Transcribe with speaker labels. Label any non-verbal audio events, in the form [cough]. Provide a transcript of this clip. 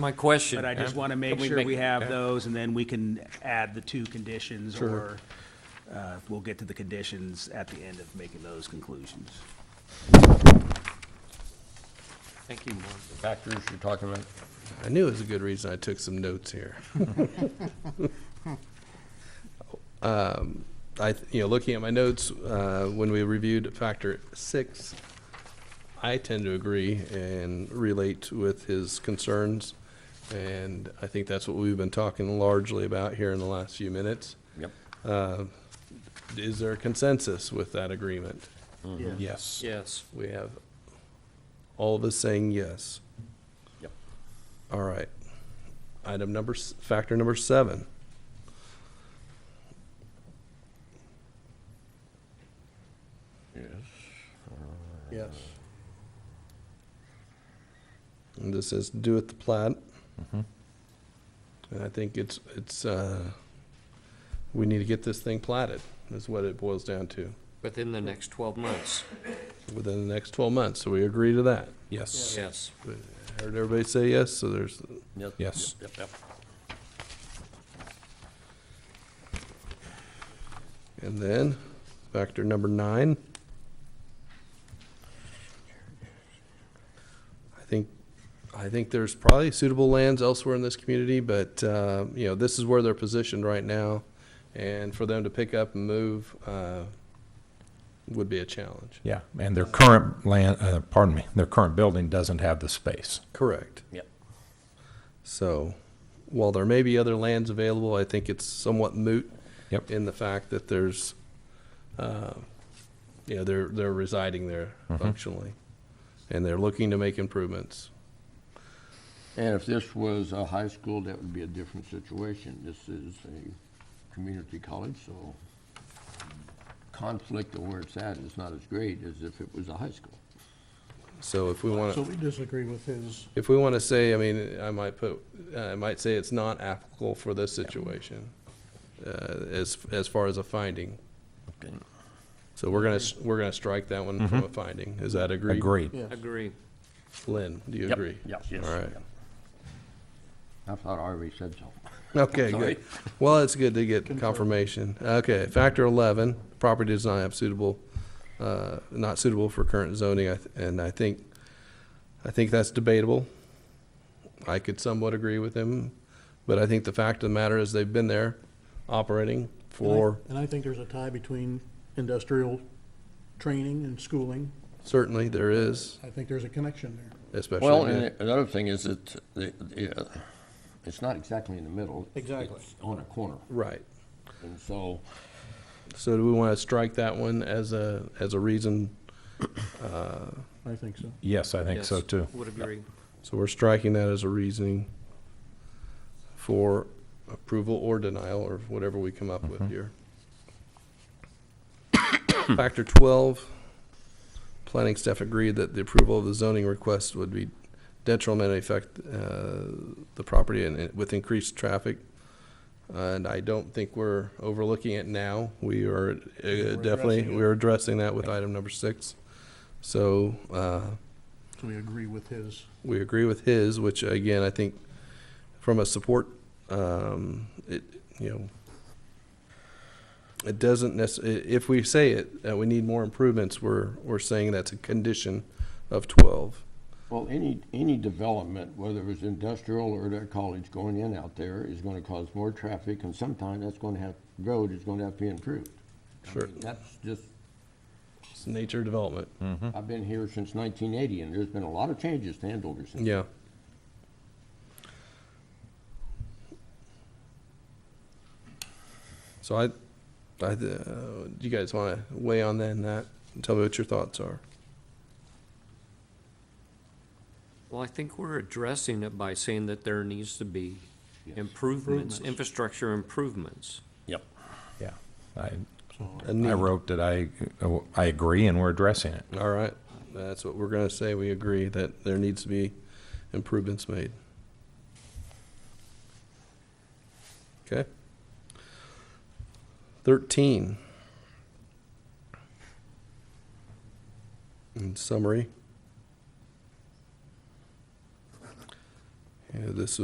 Speaker 1: My question.
Speaker 2: But I just
Speaker 1: um,
Speaker 2: want to make
Speaker 1: can we
Speaker 2: sure we have
Speaker 1: yeah.
Speaker 2: those, and then we can add the two conditions, or uh, we'll get to the conditions at the end of making those conclusions.
Speaker 1: Thank you, Mark.
Speaker 3: Factors you're talking about?
Speaker 4: I knew it was a good reason I took some notes here. Um, I, th- you know, looking at my notes, uh, when we reviewed factor six, I tend to agree and relate with his concerns. And I think that's what we've been talking largely about here in the last few minutes.
Speaker 3: Yep.
Speaker 4: Uh, Is there a consensus with that agreement? Yes.
Speaker 1: Yes.
Speaker 4: We have all of us saying yes.
Speaker 3: Yep.
Speaker 4: All right. Item number, s- factor number seven.
Speaker 3: Yes.
Speaker 4: Yes. And this is do it the plat. And I think it's, it's, uh, we need to get this thing platted, is what it boils down to,
Speaker 1: Within the next 12 months.
Speaker 4: within the next twelve months. So we agree to that.
Speaker 5: Yes.
Speaker 1: Yes.
Speaker 4: Heard everybody say yes, so there's,
Speaker 3: Yep.
Speaker 5: Yes.
Speaker 3: Yep, yep.
Speaker 4: and then factor number nine. I think, I think there's probably suitable lands elsewhere in this community, but, uh, you know, this is where they're positioned right now. And for them to pick up and move, uh, would be a challenge.
Speaker 5: Yeah, and their current land, uh, pardon me, their current building doesn't have the space.
Speaker 4: Correct.
Speaker 3: Yep.
Speaker 4: So while there may be other lands available, I think it's somewhat moot
Speaker 5: Yep.
Speaker 4: in the fact that there's, uh, you know, they're, they're residing there functionally, and they're looking to make improvements.
Speaker 3: And if this was a high school, that would be a different situation. This is a community college, so conflict of where it's at is not as great as if it was a high school.
Speaker 4: So if we want
Speaker 6: So
Speaker 4: to,
Speaker 6: we disagree with his,
Speaker 4: if we want to say, I mean, I might put, I might say it's not applicable for this situation, uh, as, as far as a finding.
Speaker 3: Okay.
Speaker 4: So we're gonna, s- we're gonna strike that one from a finding. Is that agreed?
Speaker 5: Agreed.
Speaker 6: yes.
Speaker 1: Agree.
Speaker 4: Lynn, do you agree?
Speaker 3: Yes, yes.
Speaker 4: All right.
Speaker 3: I thought I already said so.
Speaker 4: Okay,
Speaker 3: Sorry.
Speaker 4: good. Well, it's good to get confirmation. Okay, factor eleven, property does not have suitable, uh, not suitable for current zoning, I th- and I think, I think that's debatable. I could somewhat agree with him, but I think the fact of the matter is they've been there operating
Speaker 6: And I-
Speaker 4: for,
Speaker 6: And I think there's a tie between industrial training and schooling.
Speaker 4: certainly there is,
Speaker 6: I think there's a connection there.
Speaker 4: especially.
Speaker 3: Well, and another thing is that the, the, uh, it's not exactly in the middle.
Speaker 6: Exactly.
Speaker 3: It's on a corner,
Speaker 4: Right.
Speaker 3: and so.
Speaker 4: So do we want to strike that one as a, as a reason?
Speaker 6: I think so.
Speaker 5: Yes, I think so
Speaker 1: Yes.
Speaker 5: too.
Speaker 1: Would agree.
Speaker 4: So we're striking that as a reasoning for approval or denial, or whatever we come up with here. [coughs] Factor twelve, planning staff agreed that the approval of the zoning request would be detrimental effect, uh, the property and it- with increased traffic. And I don't think we're overlooking it now. We are uh, definitely,
Speaker 6: addressing it.
Speaker 4: we're addressing that with item number six. So, uh,
Speaker 6: So we agree with his.
Speaker 4: we agree with his, which again, I think from a support, um, it, you know, it doesn't necess, i- if we say it, that we need more improvements, we're, we're saying that's a condition of twelve.
Speaker 3: Well, any, any development, whether it's industrial or their college going in out there, is gonna cause more traffic, and sometime that's gonna have, road is gonna have to be improved. I
Speaker 4: Sure.
Speaker 3: mean, That's just,
Speaker 4: It's nature development.
Speaker 3: I've been here since nineteen eighty, and there's been a lot of changes to Andover since.
Speaker 4: Yeah. So I, I, uh, do you guys want to weigh on then that? and Tell me what your thoughts are.
Speaker 1: Well, I think we're addressing it by saying that there needs to be
Speaker 3: Yes.
Speaker 1: improvements, infrastructure improvements.
Speaker 3: Yep.
Speaker 5: Yeah. I,
Speaker 4: A
Speaker 5: I
Speaker 4: need.
Speaker 5: wrote that I, I agree and we're addressing it.
Speaker 4: All right, that's what we're gonna say, we agree that there needs to be improvements made. Okay. Thirteen. In summary. You know, this